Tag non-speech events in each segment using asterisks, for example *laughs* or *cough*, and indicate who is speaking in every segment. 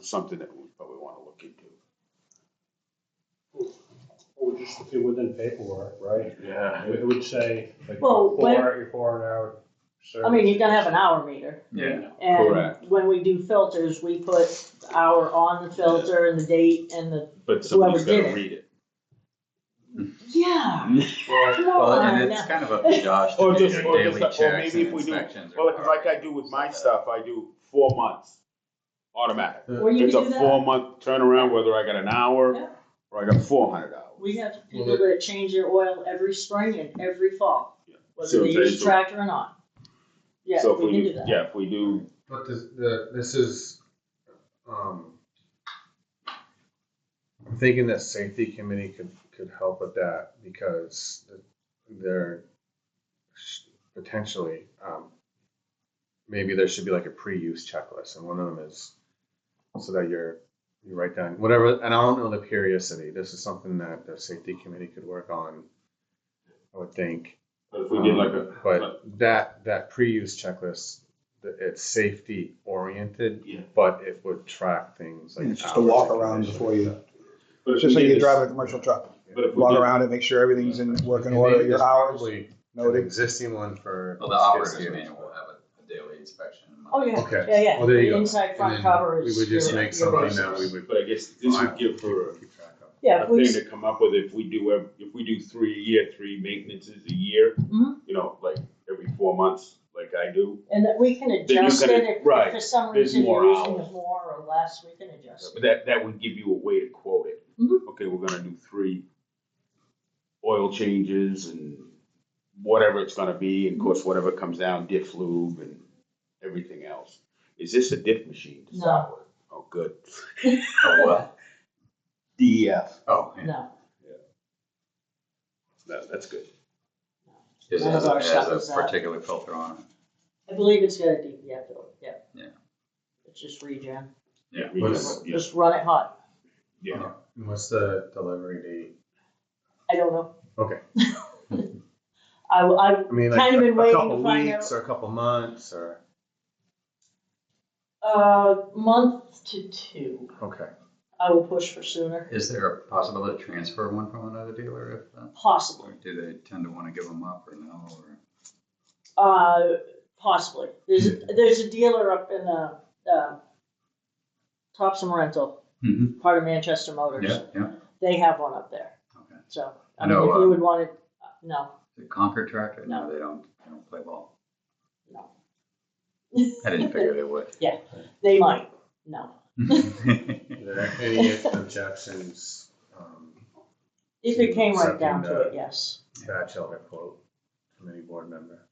Speaker 1: something that we probably want to look into.
Speaker 2: Or just do within paperwork, right?
Speaker 1: Yeah.
Speaker 2: It would say, like,
Speaker 3: Well,
Speaker 2: four,
Speaker 3: when-
Speaker 2: you're four an hour
Speaker 3: I mean, you're gonna have an hour meter,
Speaker 4: Yeah.
Speaker 3: and
Speaker 1: Correct.
Speaker 3: when we do filters, we put the hour on the filter and the date and the,
Speaker 1: But
Speaker 3: Whoever
Speaker 1: somebody's
Speaker 3: did
Speaker 1: gotta
Speaker 3: it.
Speaker 1: read it.
Speaker 3: yeah. Come
Speaker 4: Well,
Speaker 3: on,
Speaker 4: and it's
Speaker 3: now.
Speaker 4: kind of up to Josh to
Speaker 1: Or
Speaker 4: do
Speaker 1: just-
Speaker 4: your
Speaker 1: or just
Speaker 4: daily
Speaker 1: like-
Speaker 4: checks
Speaker 1: or
Speaker 4: and
Speaker 1: maybe if we do-
Speaker 4: inspections. or
Speaker 1: Well, like I do with
Speaker 4: whatever.
Speaker 1: my stuff, I do four months, automatic.
Speaker 3: Or you
Speaker 1: It's
Speaker 3: can
Speaker 1: a
Speaker 3: do that,
Speaker 1: four month turnaround, whether I got an
Speaker 3: Yeah.
Speaker 1: hour or I got four hundred hours.
Speaker 3: we have people that change their oil every spring and every fall,
Speaker 1: Yeah.
Speaker 3: whether
Speaker 1: So
Speaker 3: they use a
Speaker 1: they-
Speaker 3: tractor or not. Yeah,
Speaker 1: So if
Speaker 3: we can do that,
Speaker 1: Yeah, if we do,
Speaker 5: But this, the, this is, um, I'm thinking that safety committee could, could help with that because they're potentially, um, maybe there should be like a pre-use checklist and one of them is so that you're, you write down whatever, and I don't know the periodicity. This is something that the safety committee could work on, I would think.
Speaker 1: but if we did like
Speaker 5: Um,
Speaker 1: a.
Speaker 5: But that, that pre-use checklist, th- it's safety oriented.
Speaker 1: Yeah.
Speaker 5: But it would track things like.
Speaker 6: It's just a
Speaker 5: hours
Speaker 6: walk
Speaker 5: and
Speaker 6: around
Speaker 5: conditions.
Speaker 6: before you,
Speaker 1: but if
Speaker 6: it's just
Speaker 1: we did
Speaker 6: like you're
Speaker 1: this-
Speaker 6: driving a commercial truck.
Speaker 1: But if we
Speaker 6: Walk
Speaker 1: did-
Speaker 6: around it, make sure everything's in working
Speaker 5: And
Speaker 6: order,
Speaker 5: maybe
Speaker 6: your
Speaker 5: there's
Speaker 6: hours
Speaker 5: probably An
Speaker 6: noted.
Speaker 5: existing one for.
Speaker 4: Well, the operator's manual will have a- a daily inspection.
Speaker 3: oh, yeah,
Speaker 5: Okay.
Speaker 3: yeah, yeah,
Speaker 5: Well, there you
Speaker 3: the
Speaker 5: go.
Speaker 3: inside front
Speaker 5: And then
Speaker 3: cover
Speaker 5: We
Speaker 3: is.
Speaker 5: would just
Speaker 3: your-
Speaker 5: make
Speaker 3: your
Speaker 5: something
Speaker 3: base.
Speaker 5: that we would.
Speaker 1: But I guess this would give her
Speaker 5: Keep track of.
Speaker 3: Yeah,
Speaker 1: a thing
Speaker 3: please,
Speaker 1: to come up with if we do, ev- if we do three a year, three maintenances a year,
Speaker 3: Mhm.
Speaker 1: you know, like every four months, like I do.
Speaker 3: and that we can
Speaker 1: you
Speaker 3: adjust it
Speaker 1: can-
Speaker 3: if, if
Speaker 1: right,
Speaker 3: for some
Speaker 1: there's
Speaker 3: reason you're
Speaker 1: more
Speaker 3: using
Speaker 1: hours.
Speaker 3: it more or less, we can adjust it.
Speaker 1: But that, that would give you a way to quote it.
Speaker 3: Mhm.
Speaker 1: Okay, we're gonna do three oil changes and whatever it's gonna be, and of course, whatever comes down, diff lube and everything else. Is this a diff machine to
Speaker 3: No.
Speaker 1: start with? Oh, good. E
Speaker 4: Oh, well.
Speaker 1: DEF.
Speaker 4: Oh, yeah.
Speaker 3: No,
Speaker 1: That, that's good.
Speaker 4: Is it
Speaker 3: None of
Speaker 4: has a,
Speaker 3: our
Speaker 4: it
Speaker 3: stuff
Speaker 4: has
Speaker 3: is
Speaker 4: a
Speaker 3: that.
Speaker 4: particular filter on it.
Speaker 3: I believe it's got a DPF though, yeah.
Speaker 4: Yeah.
Speaker 3: It's just regen,
Speaker 4: Yeah.
Speaker 1: We
Speaker 5: What's-
Speaker 1: can-
Speaker 3: just run it hot,
Speaker 1: Yeah.
Speaker 5: And What's the delivery date?
Speaker 3: I don't know.
Speaker 5: Okay.
Speaker 3: *laughs* I, I,
Speaker 5: I mean, like
Speaker 3: Kind of been
Speaker 5: a- a
Speaker 3: waiting to
Speaker 5: couple
Speaker 3: find out.
Speaker 5: weeks or a couple months or,
Speaker 3: uh, month to two,
Speaker 5: okay.
Speaker 3: I will push for sooner,
Speaker 4: Is there a possibility to transfer one from another dealer if, uh,
Speaker 3: possibly,
Speaker 4: or do they tend to want to give them up or no, or?
Speaker 3: uh, possibly. There's, there's a dealer up in, uh, uh, Thompson Rental,
Speaker 4: Mhm.
Speaker 3: part of Manchester Motors,
Speaker 4: Yeah, yeah,
Speaker 3: they have one up there,
Speaker 4: okay.
Speaker 3: so,
Speaker 4: I
Speaker 3: I mean,
Speaker 4: know,
Speaker 3: if
Speaker 4: uh,
Speaker 3: you would want it, uh, no,
Speaker 4: The Concord tractor?
Speaker 3: No.
Speaker 4: No, they don't, they don't play ball.
Speaker 3: No.
Speaker 4: I didn't figure they
Speaker 3: *laughs*
Speaker 4: would. *laughs*
Speaker 3: they might, no.
Speaker 5: Are there *laughs* any objections, um,
Speaker 3: If it came right
Speaker 5: Something
Speaker 3: down to
Speaker 4: uh,
Speaker 5: that-
Speaker 3: it, yes.
Speaker 5: bachelor quote from any board member?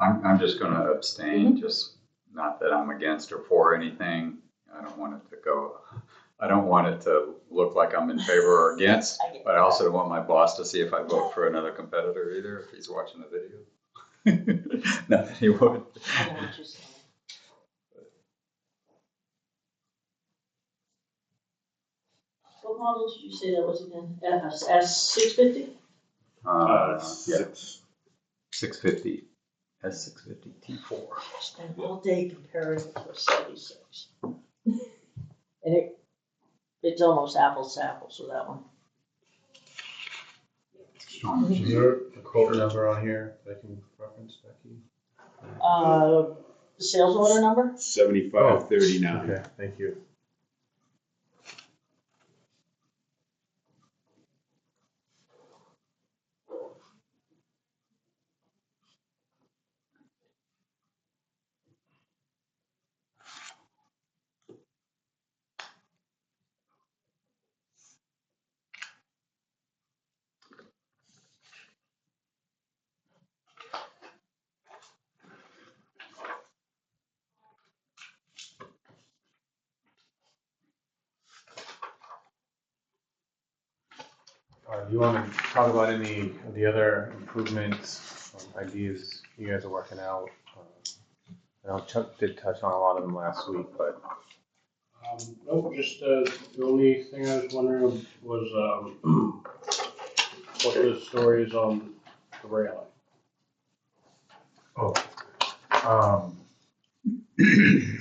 Speaker 4: I'm, I'm just gonna abstain, just not that I'm against or for anything. I don't want it to go, I don't want it to look like I'm in favor or against,
Speaker 3: I get
Speaker 4: but I also don't want my boss to see if I vote for another competitor either, if he's watching the video. *laughs* Not that he would.
Speaker 3: I know what you're saying. What model did you say that was again? S, S six fifty?
Speaker 1: Uh,
Speaker 4: Uh, yeah,
Speaker 1: six.
Speaker 4: six fifty, S six fifty T four.
Speaker 3: Spent all day comparing it to a seventy-six. And it, it's almost apples to apples with that one.
Speaker 4: Strong
Speaker 5: Is there a quote number on here that I can reference, Becky?
Speaker 3: Uh, sales order number?
Speaker 1: Seventy-five thirty-nine.
Speaker 5: Okay, thank you. Uh, do you wanna talk about any of the other improvements, um, ideas you guys are working out? Um, I know Chuck did touch on a lot of them last week, but
Speaker 2: Um, no, just, uh, the only thing I was wondering was, um, *clears throat* what the story is on the railing.
Speaker 5: Oh, um,